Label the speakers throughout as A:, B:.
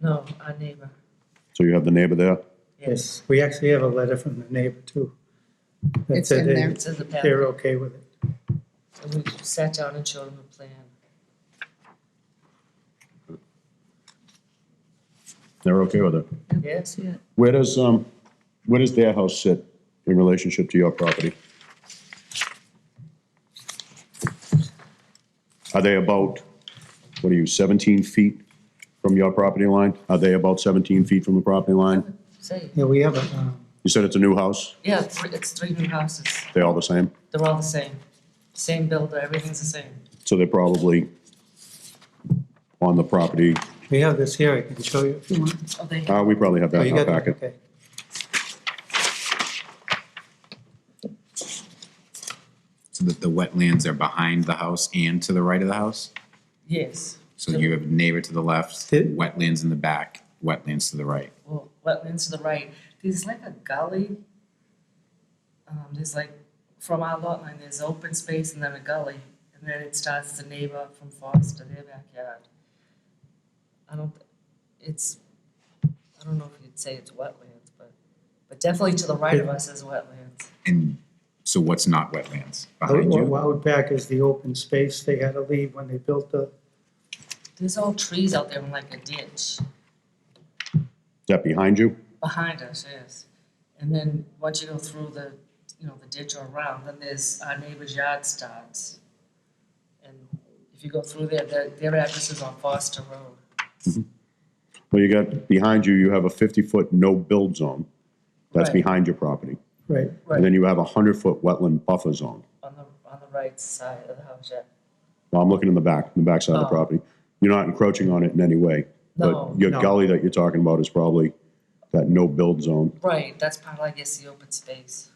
A: No, our neighbor,
B: So you have the neighbor there?
A: yes,
C: Yes, we actually have a letter from the neighbor too. that
D: It's
C: said
D: in
C: they-
D: there.
A: it's in the
C: They're
A: packet.
C: okay with it.
A: And we sat down and showed him a plan.
B: They're okay with it?
A: Yes, yeah.
B: Where does, um, where does their house sit in relationship to your property? Are they about, what are you, 17 feet from your property line? Are they about 17 feet from the property line?
A: Say,
C: Yeah, we have a, um,
B: You said it's a new house?
A: yeah, it's three- it's three new houses.
B: They're all the same?
A: They're all the same. Same builder, everything's the same.
B: So they're probably on the property,
C: we have this here, I can show you if you want.
A: Oh, they,
B: uh, we probably have
C: Oh,
B: that
C: you
B: in our
C: got that?
B: packet.
C: Okay.
E: So that the wetlands are behind the house and to the right of the house?
A: yes.
E: So you have neighbor to the left,
C: It-
E: wetlands in the back, wetlands to the right.
A: Well, wetlands to the right, there's like a gully. Um, there's like, from our lot line, there's open space and then a gully, and then it starts the neighbor from Foster, their backyard. I don't, it's, I don't know if you'd say it's wetlands, but, but definitely to the right of us is wetlands.
E: And so what's not wetlands? Behind
C: Out
E: you?
C: out back is the open space they had to leave when they built the,
A: There's all trees out there in like a ditch
B: Is that behind you?
A: behind us, yes. And then once you go through the, you know, the ditch or around, then there's our neighbor's yard starts. And if you go through there, their, their address is on Foster Road.
B: Well, you got, behind you, you have a 50-foot no-build zone. That's
A: Right.
B: behind your property.
C: right,
B: And
A: Right,
B: then you have a 100-foot wetland buffer zone.
A: on the, on the right side of the house, yeah.
B: Well, I'm looking in the back, in the backside of the
A: Oh.
B: property. You're not encroaching on it in any way.
A: No,
B: But your
C: no.
B: gully that you're talking about is probably that no-build zone.
A: Right, that's part of, I guess, the open space.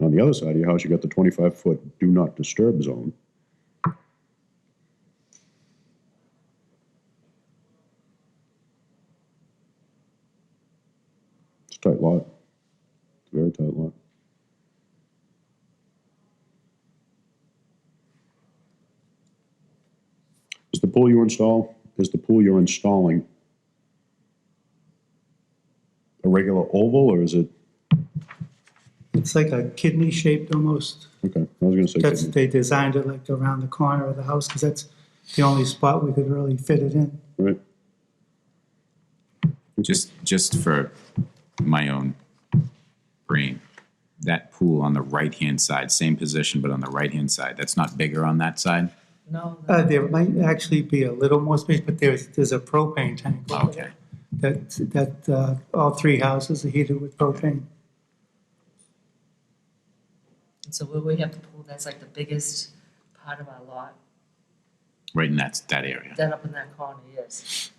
B: On the other side of your house, you got the 25-foot do not disturb zone. It's a tight lot. It's a very tight lot. Is the pool you install, is the pool you're installing a regular oval or is it,
C: it's like a kidney shaped almost.
B: okay, I was gonna say.
C: That's,
B: kidney.
C: they designed it like around the corner of the house, because that's the only spot we could really fit it in.
B: Right.
E: Just, just for my own brain, that pool on the right-hand side, same position, but on the right-hand side, that's not bigger on that side?
A: No, no,
C: Uh, there might actually be a little more space, but there's, there's a propane tank. over
E: Okay.
C: there That, that, uh, all three houses are heated with propane.
A: and so where we have the pool, that's like the biggest part of our lot,
E: Right in that, that area.
A: that up in that corner, yes.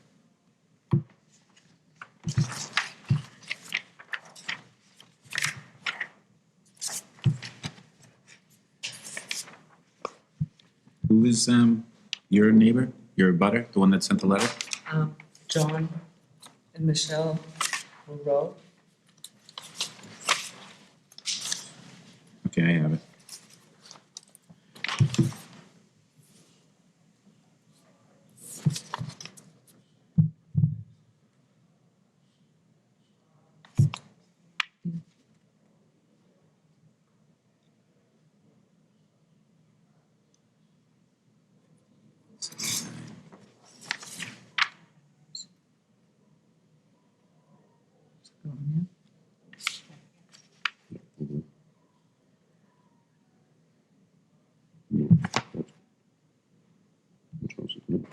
E: Who is, um, your neighbor, your butter, the one that sent the letter?
A: Um, John and Michelle Monroe.
E: Okay, I have it.
B: No. that's- which house is it?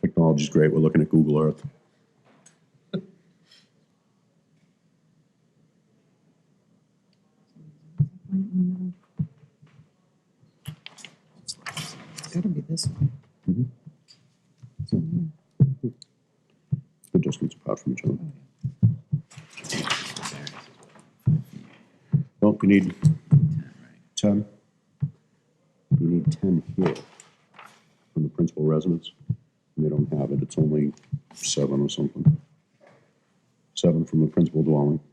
B: Technology's great. We're looking at Google Earth.
D: It's gotta be this one.
B: The distance apart from each other. Well, you need ten. You need ten here from the principal residence. And They don't have it. It's only seven or something. Seven from the principal dwelling.